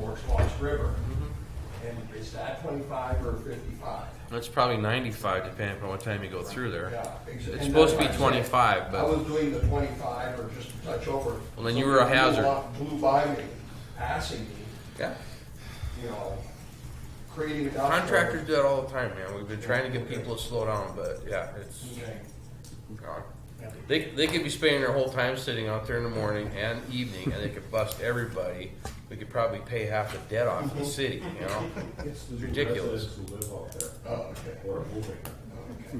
over Squash River. Mm-hmm. And is that twenty-five or fifty-five? It's probably 95 depending upon what time you go through there. Yeah. ex- and It's supposed to be that's what I'm saying. 25, I but was doing the twenty-five or just a touch over. Well, then you were a Somebody hazard. blew up- Blew by me, passing me, yeah. you know, creating a. downpour. contractors do that all the time, man. We've been trying to get people to slow down, but yeah, it's Okay. gone. Yeah. They, they could be spending their whole time sitting out there in the morning and evening, and they could bust everybody. We could probably pay half the debt off the city, you know? It's the Ridiculous. residents who live out there Oh, okay. who are moving. Okay.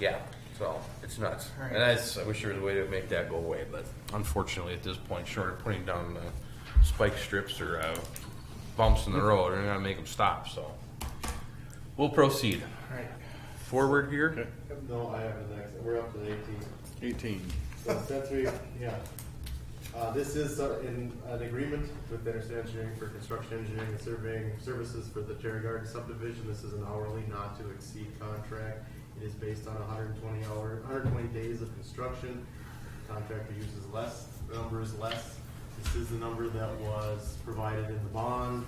Yeah, so it's nuts. And that's, I wish there was a way to make that go away, but unfortunately at this point, short of putting down uh, spike strips or uh, bumps in the road, they're not gonna make them stop, so. We'll proceed. Right. Forward here. No, I have the next, we're up to the eighteen. 18. So since we, yeah. Uh, this is uh, in an agreement with Interstate Engineering for construction engineering and surveying services for the Terry Garden subdivision. This is an hourly not to exceed contract. It is based on hundred and twenty hour, hundred and twenty days of construction. Contractor uses less, the number is less. This is the number that was provided in the bond.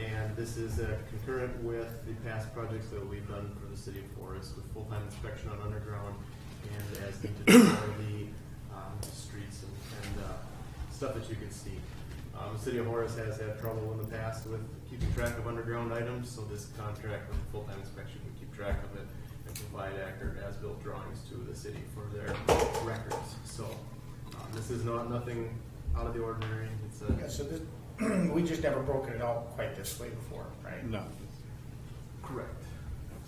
And this is uh, concurrent with the past projects that we've done for the city of Forest with full-time inspection on underground and as needed for the um, streets and, and uh, stuff that you can see. Um, the City of Horace has had trouble in the past with keeping track of underground items, so this contract with full-time inspection would keep track of it and provide accurate as-built drawings to the city for their records. So um, this is not nothing out of the ordinary. It's Yeah, a so this, we just never broken it out quite this way before, right? No. correct.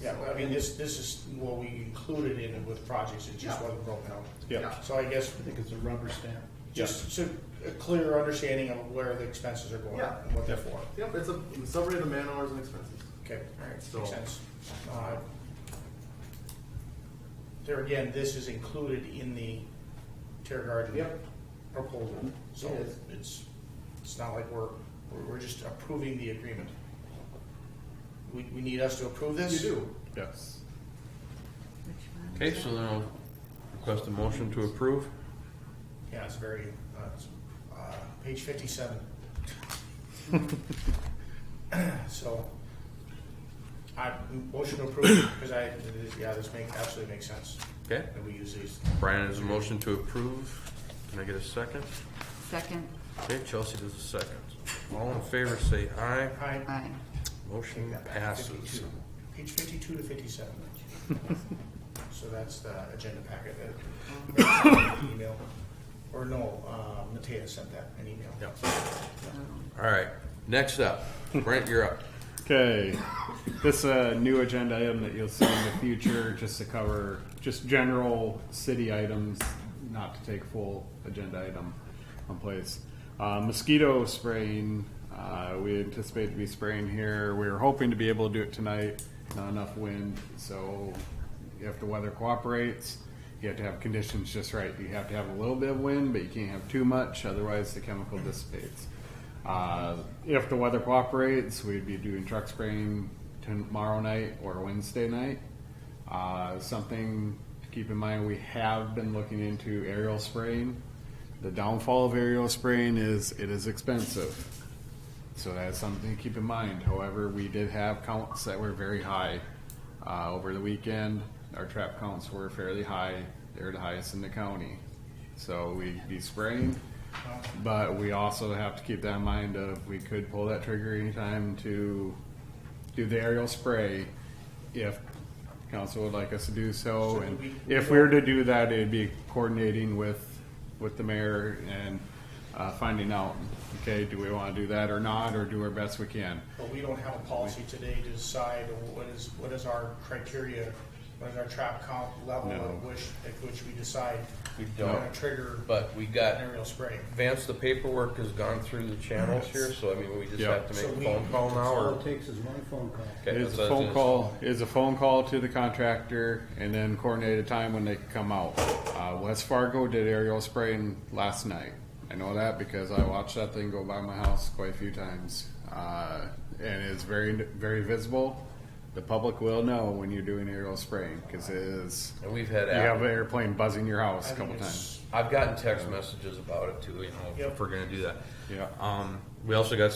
Yeah, well, I mean, this, this is what we included in it with projects, it just Yeah. wasn't broken out. Yeah. So I guess, I think it's a rubber stamp. just so, a clear understanding of where the expenses are going, Yeah. and what they're for. Yep, it's a summary of the man hours and expenses. Okay, alright, So- makes sense. Uh, There again, this is included in the Terra Garden. Yep. Proposal, so It is. it's, it's not like we're, we're- we're just approving the agreement. We, we need us to approve You this? do. Yes. Okay, so then I'll request a motion to approve. Yeah, it's very, uh, it's, uh, page fifty-seven. So, I, motion to approve, because I, yeah, this make, absolutely makes sense, Okay, that we use these. Brian has a motion to approve. Can I get a second? Second, Okay, Chelsea does a second. All in favor, say aye. Aye. aye. Motion passes. 52. Page fifty-two to fifty-seven. So that's the agenda packet that, email, or no, uh, Matea sent that, an email. Yeah. All right, next up, Brent, you're up. Okay. This uh, new agenda item that you'll see in the future, just to cover just general city items, not to take full agenda item on place. Uh, mosquito spraying, uh, we anticipate to be spraying here. We were hoping to be able to do it tonight. Not enough wind, so if the weather cooperates, you have to have conditions just right. You have to have a little bit of wind, but you can't have too much, otherwise the chemical dissipates. Uh, if the weather cooperates, we'd be doing truck spraying tomorrow night or Wednesday night. Uh, something to keep in mind, we have been looking into aerial spraying. The downfall of aerial spraying is it is expensive. So that's something to keep in mind. However, we did have counts that were very high uh, over the weekend. Our trap counts were fairly high. They were the highest in the county. So we'd be spraying, but we also have to keep that in mind of we could pull that trigger anytime to do the aerial spray if council would like us to do so. So And we- if we were to do that, it'd be coordinating with, with the mayor and uh, finding out, okay, do we want to do that or not, or do our best we can? But we don't have a policy today to decide what is, what is our criteria, what is our trap count level No. at which, at which we decide. We We're gonna don't, trigger but we an got, aerial spray. Vance, the paperwork has gone through the channels here, so I mean, we just Yeah. have to So make a we- phone call now All or? it takes is one phone call. Okay, It's that's a what I was phone gonna- call, it's a phone call to the contractor and then coordinate a time when they can come out. Uh, West Fargo did aerial spraying last night. I know that because I watched that thing go by my house quite a few times. Uh, and it's very, very visible. The public will know when you're doing aerial spraying because it is, And we've had, you have an app- airplane buzzing your I house a think couple it's- times. I've gotten text messages about it too, you know, if Yep. we're gonna do that. Yeah. Um, we also got